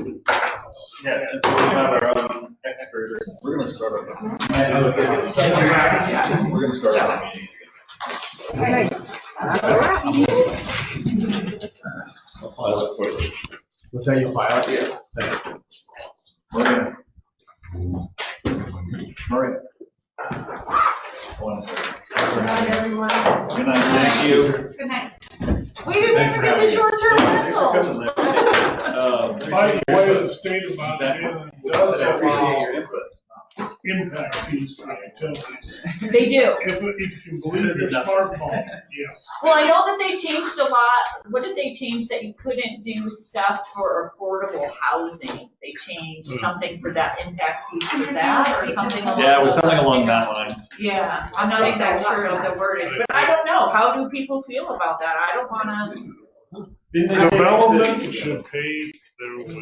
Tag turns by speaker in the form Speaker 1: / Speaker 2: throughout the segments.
Speaker 1: Yeah, since we don't have our own expert.
Speaker 2: We're gonna start our,
Speaker 1: Yeah.
Speaker 2: we're gonna start our meeting. I'll file it for you.
Speaker 3: What's that you file? Yeah.
Speaker 2: Maria. Maria. One second. Good night, thank you.
Speaker 4: Good night. We didn't even get the short-term rentals.
Speaker 5: Uh,
Speaker 6: By the way, the state of Montana does allow
Speaker 1: input.
Speaker 6: impact fees for utilities.
Speaker 4: They do.
Speaker 6: If, if you can believe your smartphone, yes.
Speaker 4: Well, I know that they changed a lot. What did they change that you couldn't do stuff for affordable housing? They changed something for that impact fee for that or something along.
Speaker 1: Hmm. Yeah, it was something along that line.
Speaker 4: Yeah, I'm not exactly sure of the wording, but I don't know. How do people feel about that? I don't wanna,
Speaker 6: Development should pay their way.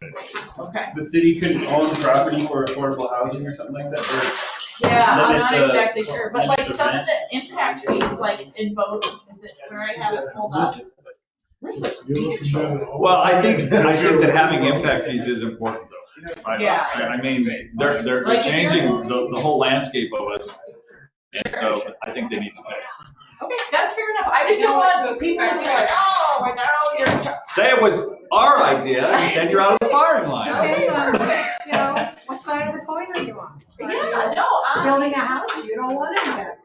Speaker 4: okay.
Speaker 5: The city couldn't own property for affordable housing or something like that,
Speaker 4: Yeah, I'm not
Speaker 5: Limit the-
Speaker 4: exactly sure, but like some of the impact fees, like in vote, is it where I have it pulled up? We're substantial.
Speaker 1: Well, I think, I think that having impact fees is important though. I-
Speaker 4: Yeah.
Speaker 1: I I mean, they're, they're they're changing the, the whole landscape of us. And so I think they need to pay.
Speaker 4: Okay, that's fair enough. I just don't want people to be like, oh, and now you're. in charge."
Speaker 1: Say it was our idea and then you're out of the firing line.
Speaker 7: Okay, perfect, you know, what side of the coin are you on?
Speaker 4: Yeah, no, I,
Speaker 7: Building a house, you don't want any of that.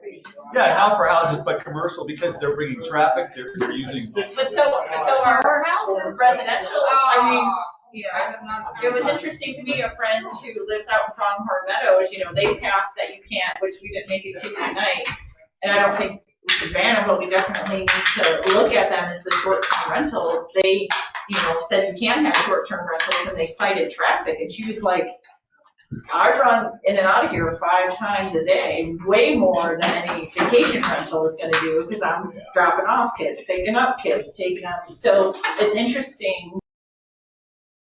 Speaker 1: Yeah, not for houses, but commercial because they're bringing traffic, they're, they're using.
Speaker 4: but so, but so our houses, residential, I mean, yeah.
Speaker 7: I was not.
Speaker 4: It was interesting to me, a friend who lives out in Pronghorn Meadows, you know, they passed that you can't, which we didn't make it to tonight. And I don't think we should ban them, but we definitely need to look at them as the short-term rentals. They, you know, said you can have short-term rentals and they cited traffic and she was like, I run in and out of here five times a day, way more than any vacation rental is gonna do because I'm dropping off kids, picking up kids, taking up. So it's interesting